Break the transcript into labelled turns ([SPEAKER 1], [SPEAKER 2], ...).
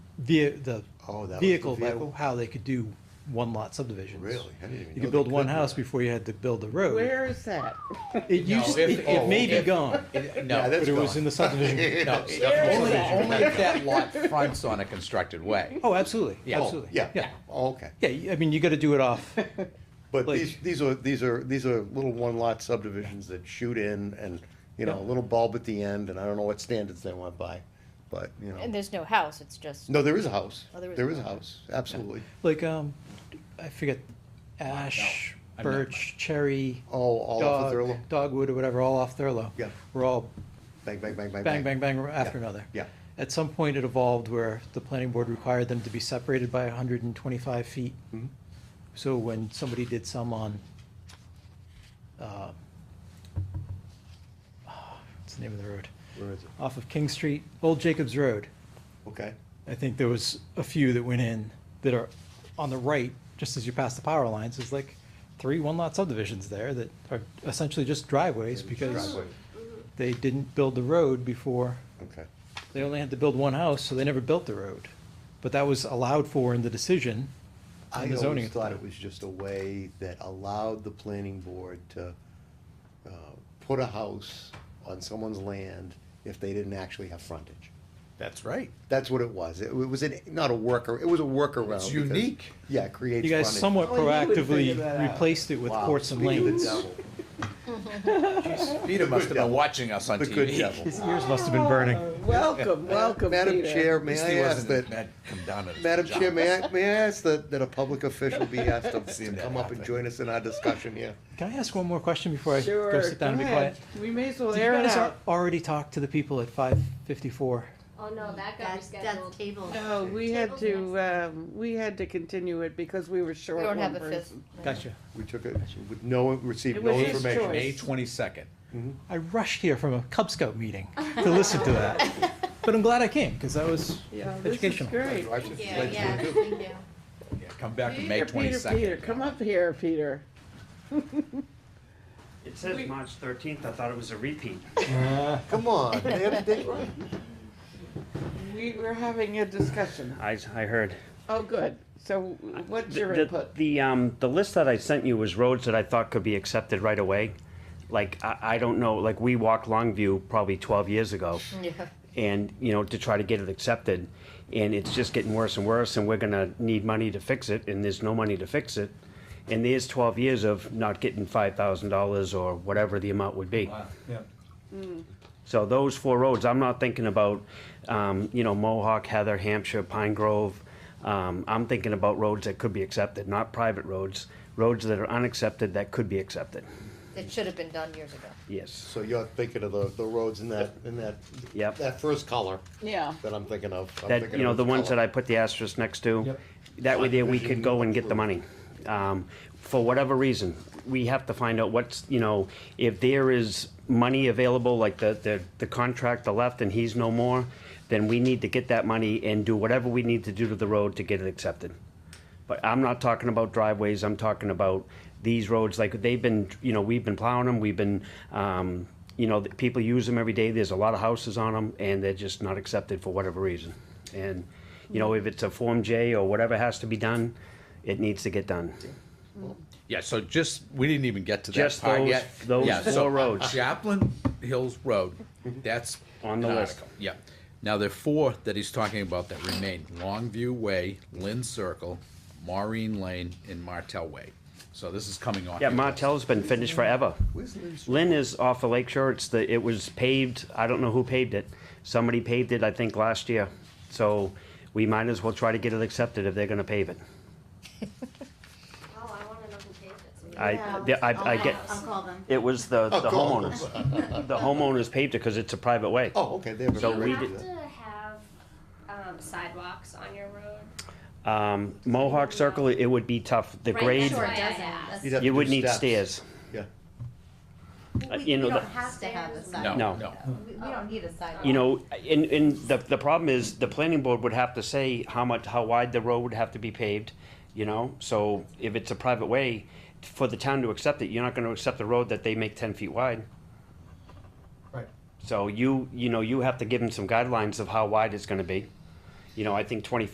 [SPEAKER 1] via, the
[SPEAKER 2] Oh, that was the
[SPEAKER 1] vehicle by
[SPEAKER 2] vehicle?
[SPEAKER 1] how they could do one lot subdivisions.
[SPEAKER 2] Really? I didn't even know
[SPEAKER 1] You
[SPEAKER 2] they
[SPEAKER 1] could build one
[SPEAKER 2] do
[SPEAKER 1] house
[SPEAKER 2] that.
[SPEAKER 1] before you had to build the road.
[SPEAKER 3] Where is that?
[SPEAKER 1] It
[SPEAKER 4] No,
[SPEAKER 1] used,
[SPEAKER 4] if-
[SPEAKER 1] it it may be
[SPEAKER 4] if-
[SPEAKER 1] gone.
[SPEAKER 4] It-
[SPEAKER 2] Yeah,
[SPEAKER 4] No,
[SPEAKER 2] that's
[SPEAKER 1] But it was
[SPEAKER 2] gone.
[SPEAKER 1] in the subdivision.
[SPEAKER 4] no,
[SPEAKER 2] It's
[SPEAKER 4] only,
[SPEAKER 2] definitely-
[SPEAKER 4] only if that lot fronts on a constructed way.
[SPEAKER 1] Oh, absolutely,
[SPEAKER 4] Yeah.
[SPEAKER 1] absolutely.
[SPEAKER 2] Yeah, yeah, Oh, okay.
[SPEAKER 1] Yeah, I mean, you gotta do it off.
[SPEAKER 2] But
[SPEAKER 1] Like-
[SPEAKER 2] these, these are, these are, these are little one-lot subdivisions that shoot in and, you know, a
[SPEAKER 1] Yeah.
[SPEAKER 2] little bulb at the end, and I don't know what standards they went by, but, you
[SPEAKER 5] And
[SPEAKER 2] know.
[SPEAKER 5] there's no house, it's just.
[SPEAKER 2] No, there is a house.
[SPEAKER 5] Oh, there is
[SPEAKER 2] There
[SPEAKER 5] a
[SPEAKER 2] is a
[SPEAKER 5] house.
[SPEAKER 2] house, absolutely.
[SPEAKER 1] Like, um, I forget, ash,
[SPEAKER 4] I'm not-
[SPEAKER 1] birch, cherry,
[SPEAKER 2] Oh, all off of Thurlow?
[SPEAKER 1] dog, dogwood or whatever, all off Thurlow.
[SPEAKER 2] Yeah.
[SPEAKER 1] Were all
[SPEAKER 2] Bang, bang, bang, bang,
[SPEAKER 1] bang,
[SPEAKER 2] bang.
[SPEAKER 1] bang, bang after another.
[SPEAKER 2] Yeah.
[SPEAKER 1] At some point, it evolved where the planning board required them to be separated by hundred and twenty-five feet. Mm-hmm. So when somebody did some on, uh, what's the name of the road?
[SPEAKER 2] Where is it?
[SPEAKER 1] Off of King Street, Old Jacobs Road.
[SPEAKER 2] Uh, Okay.
[SPEAKER 1] I think there was a few that went in that are on the right, just as you pass the power lines, there's like three one-lot subdivisions there that are essentially just driveways because
[SPEAKER 2] Driveway.
[SPEAKER 1] they didn't build the road before.
[SPEAKER 2] Okay,
[SPEAKER 1] They only had to build one house, so they never built the road. But that was allowed for in the decision
[SPEAKER 2] I
[SPEAKER 1] and the zoning.
[SPEAKER 2] always thought it was just a way that allowed the planning board to, uh, put a house on someone's land if they didn't actually have frontage.
[SPEAKER 4] That's right.
[SPEAKER 2] That's what it was. It was an, not a worker, it was a workaround.
[SPEAKER 4] It's
[SPEAKER 2] because-
[SPEAKER 4] unique.
[SPEAKER 2] Yeah, it creates
[SPEAKER 1] You guys
[SPEAKER 2] frontage.
[SPEAKER 1] somewhat
[SPEAKER 3] Well, you would
[SPEAKER 1] proactively
[SPEAKER 3] figure that out.
[SPEAKER 1] replaced it with
[SPEAKER 2] Wow,
[SPEAKER 1] courts and
[SPEAKER 2] speak of the
[SPEAKER 1] lanes.
[SPEAKER 2] devil.
[SPEAKER 4] Peter must have been
[SPEAKER 2] devil.
[SPEAKER 4] watching us on
[SPEAKER 2] The good
[SPEAKER 4] TV.
[SPEAKER 2] devil.
[SPEAKER 1] His ears must have been burning.
[SPEAKER 3] Oh, Welcome, welcome,
[SPEAKER 2] Madam
[SPEAKER 3] Peter.
[SPEAKER 2] Chair,
[SPEAKER 4] At least
[SPEAKER 2] may
[SPEAKER 4] he
[SPEAKER 2] I ask
[SPEAKER 4] wasn't
[SPEAKER 2] that,
[SPEAKER 4] mad- come down at us,
[SPEAKER 2] Madam
[SPEAKER 4] John.
[SPEAKER 2] Chair, may I, may I ask that, that a public official be asked to- to
[SPEAKER 4] Seen that
[SPEAKER 2] come up and
[SPEAKER 4] happen.
[SPEAKER 2] join us in our discussion here?
[SPEAKER 1] Can I ask one more question before I
[SPEAKER 3] Sure,
[SPEAKER 1] go sit down and
[SPEAKER 3] go
[SPEAKER 1] be
[SPEAKER 3] ahead.
[SPEAKER 1] quiet?
[SPEAKER 3] We may as well
[SPEAKER 1] Did
[SPEAKER 3] air
[SPEAKER 1] you
[SPEAKER 3] it
[SPEAKER 1] guys
[SPEAKER 3] out.
[SPEAKER 1] al- already talk to the people at five fifty-four?
[SPEAKER 6] Oh, no, that got
[SPEAKER 5] That's, that's
[SPEAKER 6] rescheduled.
[SPEAKER 5] table.
[SPEAKER 3] No, we had
[SPEAKER 6] Table's
[SPEAKER 3] to, um, we had to continue it because we were
[SPEAKER 5] We
[SPEAKER 3] short
[SPEAKER 5] don't have
[SPEAKER 3] one
[SPEAKER 5] a fifth.
[SPEAKER 3] person.
[SPEAKER 1] Gotcha.
[SPEAKER 2] We took it with no, received
[SPEAKER 3] It
[SPEAKER 2] no
[SPEAKER 3] was his
[SPEAKER 2] information.
[SPEAKER 3] choice.
[SPEAKER 4] May twenty-second.
[SPEAKER 1] I rushed here from a Cub Scout meeting to listen to that. But I'm glad I came, because that was
[SPEAKER 3] Yeah, this is
[SPEAKER 1] educational.
[SPEAKER 3] great.
[SPEAKER 2] Right,
[SPEAKER 5] Thank
[SPEAKER 2] just
[SPEAKER 5] you,
[SPEAKER 2] like-
[SPEAKER 5] yeah, thank you.
[SPEAKER 4] Yeah, come back to May
[SPEAKER 3] Peter, Peter, Peter,
[SPEAKER 4] twenty-second.
[SPEAKER 3] come up here, Peter.
[SPEAKER 7] It says March thirteenth, I thought it was a repeat.
[SPEAKER 2] Come on, they had a date right.
[SPEAKER 3] We were having a discussion.
[SPEAKER 7] I, I heard.
[SPEAKER 3] Oh, good. So what's your
[SPEAKER 7] The-
[SPEAKER 3] input?
[SPEAKER 7] The, um, the list that I sent you was roads that I thought could be accepted right away. Like, I, I don't know, like, we walked Longview probably twelve years ago.
[SPEAKER 5] Yeah.
[SPEAKER 7] And, you know, to try to get it accepted, and it's just getting worse and worse, and we're gonna need money to fix it, and there's no money to fix it. And there's twelve years of not getting five thousand dollars or whatever the amount would be. So those four roads, I'm not thinking about, um, you know, Mohawk, Heather, Hampshire, Pine Grove. Um, I'm thinking about roads that could be accepted, not private roads, roads that are unaccepted that could be accepted.
[SPEAKER 5] It should have been done years ago.
[SPEAKER 7] Yes.
[SPEAKER 2] So you're thinking of the, the roads in that, in that,
[SPEAKER 7] Yep.
[SPEAKER 2] that first color
[SPEAKER 3] Yeah.
[SPEAKER 2] that I'm thinking of. I'm
[SPEAKER 7] That,
[SPEAKER 2] thinking
[SPEAKER 7] you know,
[SPEAKER 2] of
[SPEAKER 7] the
[SPEAKER 2] the
[SPEAKER 7] ones that
[SPEAKER 2] color.
[SPEAKER 7] I put the asterisk next to, that way there we could go and get the money. Um, for whatever reason, we have to find out what's, you know, if there is money available, like the, the, the contractor left and he's no more, then we need to get that money and do whatever we need to do to the road to get it accepted. But I'm not talking about driveways, I'm talking about these roads, like they've been, you know, we've been plowing them, we've been, um, you know, the people use them every day, there's a lot of houses on them, and they're just not accepted for whatever reason. And, you know, if it's a Form J or whatever has to be done, it needs to get done.
[SPEAKER 4] Yeah, so just, we didn't even get to that
[SPEAKER 7] Just
[SPEAKER 4] part
[SPEAKER 7] those-
[SPEAKER 4] yet.
[SPEAKER 7] those
[SPEAKER 4] Yeah, so
[SPEAKER 7] four roads.
[SPEAKER 4] Chaplain Hills Road, that's.
[SPEAKER 7] On the
[SPEAKER 4] an
[SPEAKER 7] list.
[SPEAKER 4] article, Yeah. Now, there are four that he's talking about that remain, Longview Way, Lynn Circle, Maureen Lane, and Martell Way. So this is coming on.
[SPEAKER 7] Yeah,
[SPEAKER 4] your list.
[SPEAKER 7] Martell's been finished forever.
[SPEAKER 2] Where's Liz?
[SPEAKER 7] Lynn is off of Lake Shore, it's the, it was paved, I don't know who paved it, somebody paved it, I think, last year. So we might as well try to get it accepted if they're gonna pave it.
[SPEAKER 6] Oh, I wanna know who paid it.
[SPEAKER 7] I, the- I, I get,
[SPEAKER 6] Oh,
[SPEAKER 5] I'll call them.
[SPEAKER 7] it was the, the
[SPEAKER 2] cool.
[SPEAKER 7] homeowners. The homeowners paved it because it's a private way.
[SPEAKER 2] Oh, okay, they have a.
[SPEAKER 7] So
[SPEAKER 6] Do
[SPEAKER 7] we
[SPEAKER 6] you
[SPEAKER 2] right
[SPEAKER 7] did-
[SPEAKER 6] have to have, um, sidewalks on your road?
[SPEAKER 7] Um, Mohawk Circle, it would be tough, the
[SPEAKER 6] Right,
[SPEAKER 7] grade,
[SPEAKER 6] that's
[SPEAKER 5] Sure
[SPEAKER 6] why I
[SPEAKER 5] doesn't.
[SPEAKER 6] asked.
[SPEAKER 2] You'd have
[SPEAKER 7] you
[SPEAKER 2] to
[SPEAKER 7] would
[SPEAKER 2] do
[SPEAKER 7] need
[SPEAKER 2] steps.
[SPEAKER 7] stairs.
[SPEAKER 2] Yeah.
[SPEAKER 7] Uh,
[SPEAKER 6] We-
[SPEAKER 7] you know,
[SPEAKER 6] We
[SPEAKER 7] the-
[SPEAKER 6] don't
[SPEAKER 5] Has
[SPEAKER 6] have
[SPEAKER 5] to have a
[SPEAKER 6] stairs.
[SPEAKER 5] sidewalk.
[SPEAKER 4] No,
[SPEAKER 7] No.
[SPEAKER 4] no.
[SPEAKER 5] We, we don't need a sidewalk.
[SPEAKER 7] You know, and, and the, the problem is, the planning board would have to say how much, how wide the road would have to be paved, you know? So if it's a private way, for the town to accept it, you're not gonna accept a road that they make ten feet wide.
[SPEAKER 2] Right.
[SPEAKER 7] So you, you know, you have to give them some guidelines of how wide it's gonna be. You know, I think twenty